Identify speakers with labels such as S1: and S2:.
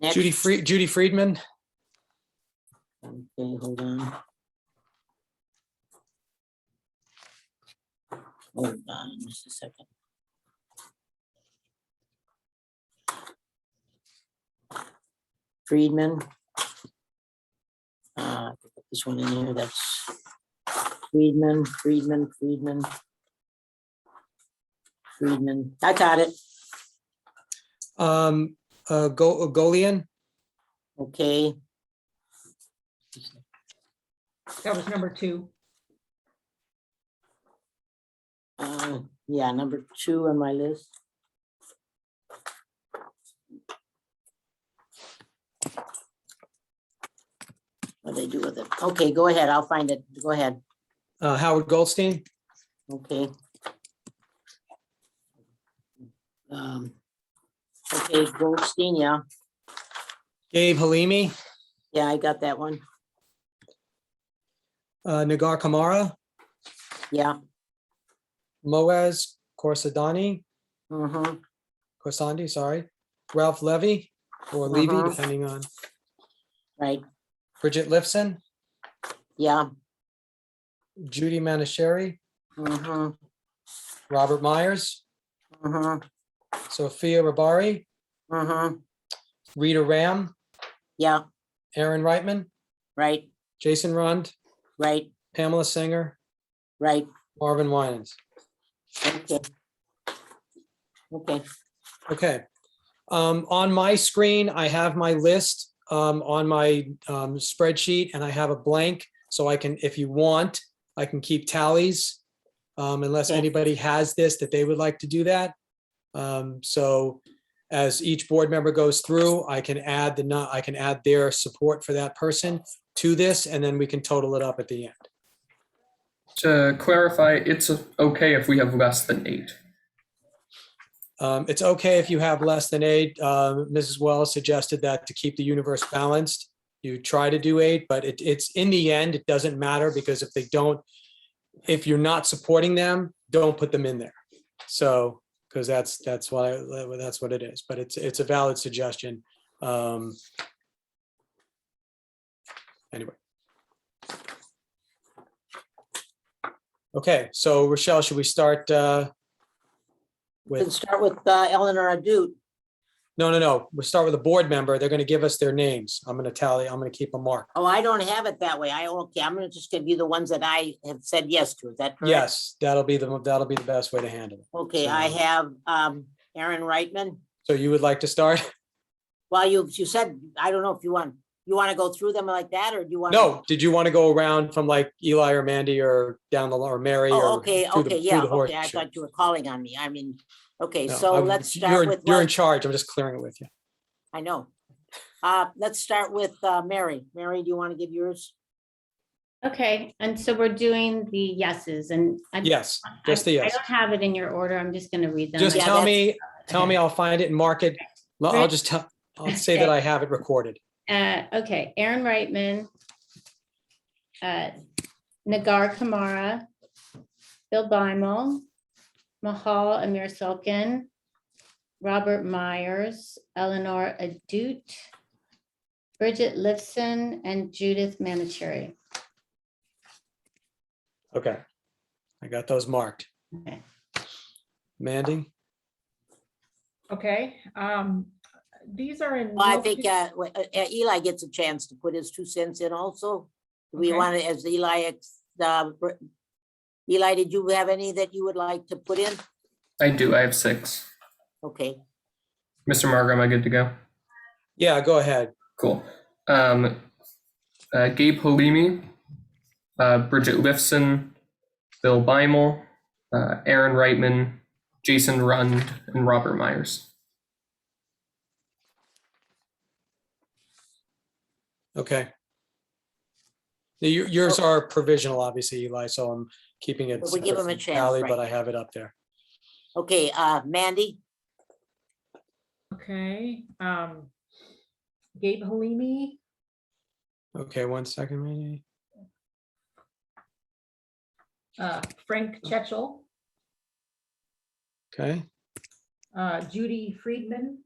S1: Next.
S2: Judy Free, Judy Friedman,
S1: Okay, hold on. Hold on just a second. Friedman. Uh, put This one in here, that's Friedman, Friedman, Friedman. Friedman, I got it.
S2: um, uh, Go, Golian,
S1: Okay,
S3: That was number two.
S1: uh, yeah, number two on my list. What they do with it? Okay, go ahead. I'll find it. Go ahead.
S2: uh, Howard Goldstein,
S1: Okay. Um, Okay, Goldstein, yeah.
S2: Gabe Halimi,
S1: Yeah, I got that one.
S2: uh, Nagar Kamara,
S1: Yeah.
S2: Moaz Corsadani,
S1: mhm.
S2: Corsandi, sorry, Ralph Levy or Levy,
S1: Uh-huh.
S2: depending on
S1: Right,
S2: Bridget Lifson,
S1: yeah.
S2: Judy Manishari,
S1: mhm,
S2: Robert Myers,
S1: mhm,
S2: Sophia Rabari,
S1: mhm.
S2: Rita Ram,
S1: Yeah,
S2: Aaron Reitman,
S1: right,
S2: Jason Rund,
S1: right,
S2: Pamela Singer,
S1: right.
S2: Marvin Winans.
S1: Okay. Okay,
S2: Okay. Um, on my screen, I have my list, um, on my, um, spreadsheet and I have a blank. So I can, if you want, I can keep tallies. Um, unless
S1: Okay.
S2: anybody has this, that they would like to do that. Um, so as each board member goes through, I can add the, nu- I can add their support for that person to this, and then we can total it up at the end.
S4: To clarify, it's okay if we have less than eight.
S2: Um, it's okay if you have less than eight. Um, Mrs. Wells suggested that to keep the universe balanced. You try to do eight, but it, it's in the end, it doesn't matter because if they don't, if you're not supporting them, don't put them in there. So, because that's, that's why, that's what it is, but it's, it's a valid suggestion. Um, anyway. Okay, so Rochelle, should we start, uh, with?
S1: let's start with uh, Eleanor Adut.
S2: No, no, no. We'll start with a board member. They're going to give us their names. I'm going to tally, I'm going to keep a mark.
S1: Oh, I don't have it that way. I, okay, I'm gonna just give you the ones that I have said yes to. Is that correct?
S2: Yes, that'll be the, that'll be the best way to handle it.
S1: Okay, I have um Aaron Reitman.
S2: So you would like to start?
S1: Well, you, you said, I don't know if you want, you want to go through them like that, or do you want?
S2: No, did you want to go around from like Eli or Mandy or down the, or Mary?
S1: Oh,
S2: or
S1: okay,
S2: through the-
S1: okay,
S2: through
S1: yeah,
S2: the
S1: okay. I
S2: horseshoe?
S1: thought you were calling on me. I mean, okay,
S2: No,
S1: so
S2: I'm-
S1: let's
S2: you're-
S1: start with,
S2: You're in
S1: what-
S2: charge. I'm just clearing it with you.
S1: I know. Uh, let's start with uh Mary. Mary, do you want to give yours?
S5: Okay, and so we're doing the yeses and. I-
S2: Yes, just the
S5: I-
S2: yes.
S5: I don't have it in your order. I'm just gonna read them.
S2: Just
S1: Yeah,
S2: tell
S1: that's-
S2: me, tell me, I'll find it and mark it. Well, I'll
S5: Right.
S2: just tell, I'll say that I have it recorded.
S5: Uh, okay, Aaron Reitman. uh, Nagar Kamara. Bill Bimel. Mahal Amir Sulkin. Robert Myers, Eleanor Adut. Bridget Lifson and Judith Manicherry.
S2: Okay. I got those marked.
S5: Okay.
S2: Mandy?
S3: Okay, um, these are in.
S1: Well, I
S3: no
S1: think
S3: par-
S1: uh wa- uh, uh, Eli gets a chance to put his two cents in also. Do We
S3: Okay.
S1: want to, as Eli, ex- uh, br- Eli, did you have any that you would like to put in?
S4: I do, I have six.
S1: Okay,
S4: Mr. Margo, am I good to go?
S2: Yeah, go ahead.
S4: Cool. Um, uh, Gabe Halimi, uh, Bridget Lifson, Bill Bimel, uh, Aaron Reitman, Jason Rund, and Robert Myers.
S2: Okay. The- your- Yours
S1: So-
S2: are provisional, obviously, Eli, so I'm keeping it.
S1: But Oh. we give 'em a
S2: separate from
S1: chance,
S2: tally,
S1: right.
S2: But I have it up there.
S1: okay, uh, Mandy, uh,
S3: Okay, um, Gabe Halimi,
S2: Okay, one second, Mandy.
S3: uh, Frank Chechel,
S2: Okay,
S3: uh, Judy Friedman,